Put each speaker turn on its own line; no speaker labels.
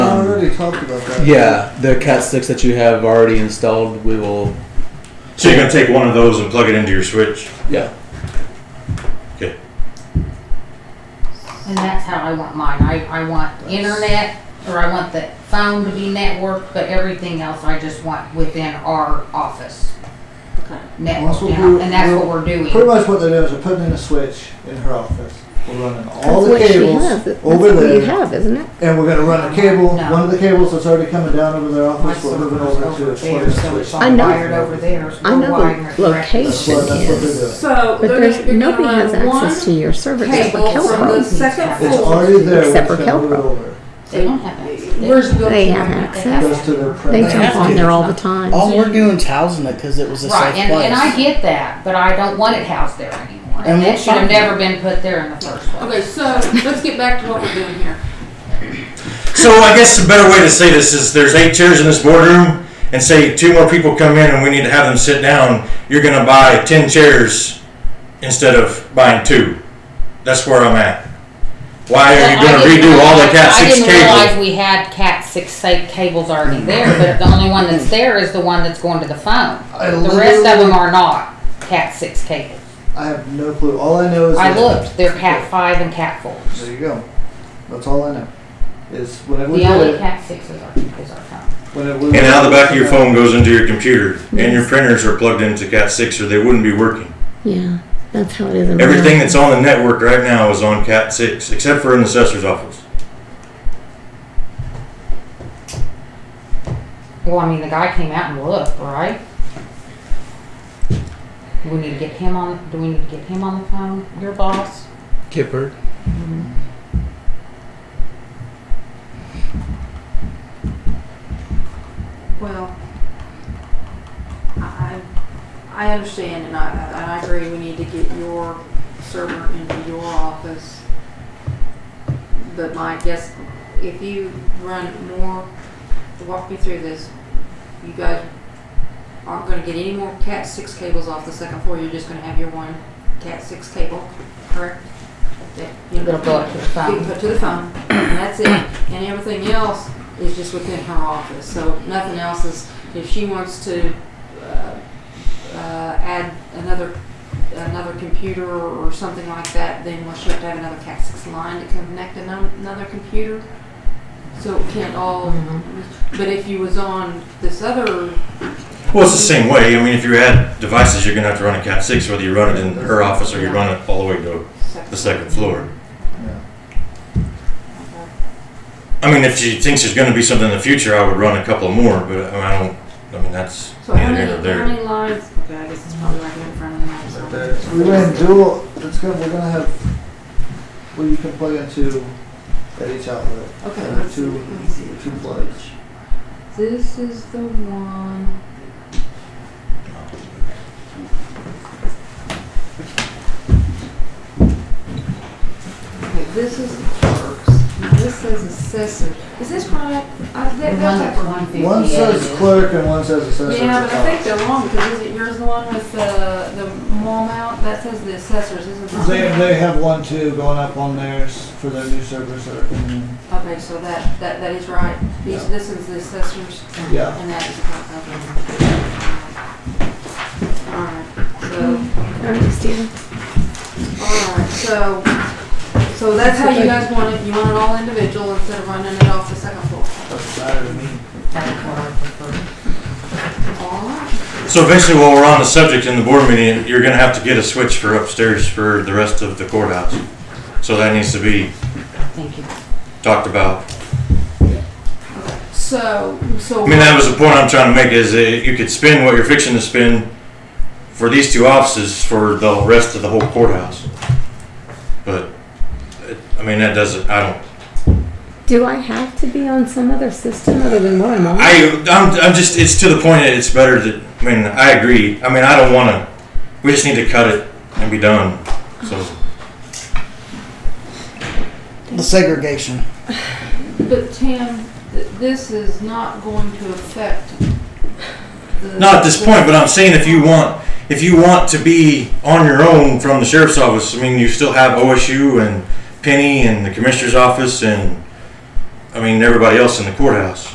already talked about that.
Yeah, the cat sticks that you have already installed, we will.
So you're gonna take one of those and plug it into your switch.
Yeah.
And that's how I want mine. I, I want internet, or I want the phone to be networked, but everything else I just want within our office.
Okay.
Network,
That's what
now,
we're-
and that's what
we're-
we're doing.
Pretty much what they're doing is they're putting in a switch in her office. We're running all the
what she
cables
has. That's
over
what you
there,
have, isn't it?
and we're gonna run a cable.
No.
One of the cables that's already coming down over their
My
office. We're moving over
server's
to
over
a
there,
switch.
so it's all
I know.
wired over there.
I know the
That's what, that's what they're doing.
So
But
they're
there's,
gonna, you're
nobody
gonna
has
run one
access to your server except for
cable from the
Kelpro.
second
It's
It's
floor.
already there.
Except
we're
for
just gonna move it
Kelpro.
over.
They don't have access.
Where's the
They
built-in
have
internet?
access.
Goes to their
They
premise.
jump on there all the time.
All Oh, we're doing is housing it because it was a
Right,
safe
and,
place.
and I get that, but I don't want it housed there anymore.
And
And
we'll
it should have
find it.
never been put there in the first place.
Okay, so let's get back to what we're doing here.
So I guess a better way to say this is there's eight chairs in this boardroom, and say two more people come in and we need to have them sit down. You're gonna buy ten chairs instead of buying two. That's where I'm at. Why are you
But I
gonna
didn't
redo all the
realize-
Cat
I
six
didn't realize
cables?
we had Cat six sa- cables already there, but the only one that's there is the one that's going to the phone.
I
The rest of
literally-
them are not Cat six cables.
I have no clue. All I know is
I
that-
looked, they're Cat five and Cat four.
There you go. That's all I know. Is whenever we
The
do
only
it,
Cat six is our, is our phone.
whenever we
And now the back of your phone goes into your computer, and your printers are plugged into Cat six, or they wouldn't be working.
Yeah, that's how it is. in my
Everything
house.
that's on the network right now is on Cat six, except for in the assessor's office.
Well, I mean, the guy came out and looked, right? Do we need to get him on, do we need to get him on the phone, your boss?
Kipper.
Well, I, I understand and I, and I agree we need to get your server into your office. But my guess, if you run more, walk me through this, you guys aren't gonna get any more cat six cables off the second floor, you're just gonna have your one cat six cable, correct? That, you
You're gonna go
know,
up to the
you
phone.
can put to the phone, and that's it. And everything else is just within her office, so nothing else is, if she wants to, uh, uh, add another, another computer or something like that, then will she have to have another Cat six line to connect ano- another computer? So it can't all, but if you was on this other,
Well, it's the same way. I mean, if you add devices, you're going to have to run a Cat 6, whether you run it in her office or you run it all the way to the second floor. I mean, if she thinks there's going to be something in the future, I would run a couple more, but I don't, I mean, that's
So how
neither here
many,
nor
how
there.
many lines, okay, I guess it's probably right here in front of me. I'm sorry.
We ran dual. It's gonna. We're gonna have. Well, you can plug into at each outlet.
Okay,
Uh,
let's see,
two,
let me see.
two plugs.
This is the one. Okay, this is the clerks. Now this says assessor. Is this right? I,
The one
that, that's
that's
like one.
one fifty-eight.
One says clerk and one says assessor.
Yeah,
at
but
the
I think
top.
they're wrong because isn't yours the one with the, the wall mount? That says the assessors, isn't it?
They, they have one too going up on theirs for their new servers that are coming in.
Okay, so that, that, that is right. These,
Yeah.
this is the assessors.
Yeah.
And that is okay. All right,
I understand.
so, all right, so, so that's how you guys want it, you want it all individual instead of running it off the second floor.
Doesn't matter to me.
All right,
So basically, while we're on the subject in the board meeting, you're going to have to get a switch for upstairs for the rest of the courthouse. So that needs to be
Thank you.
talked about.
so, so.
I mean, that was the point I'm trying to make is that you could spend what you're fixing to spend for these two offices for the rest of the whole courthouse. But, it- I mean, that doesn't, I don't,
Do I have to be on some other system other than what I'm on?
I, I'm, I'm just, it's to the point that it's better that, I mean, I agree. I mean, I don't want to, we just need to cut it and be done. So,
the segregation.
But Tim, th- this is not going to affect the.
not at this point, but I'm saying if you want, if you want to be on your own from the sheriff's office, I mean, you still have OSU and Penny and the commissioner's office and I mean, everybody else in the courthouse.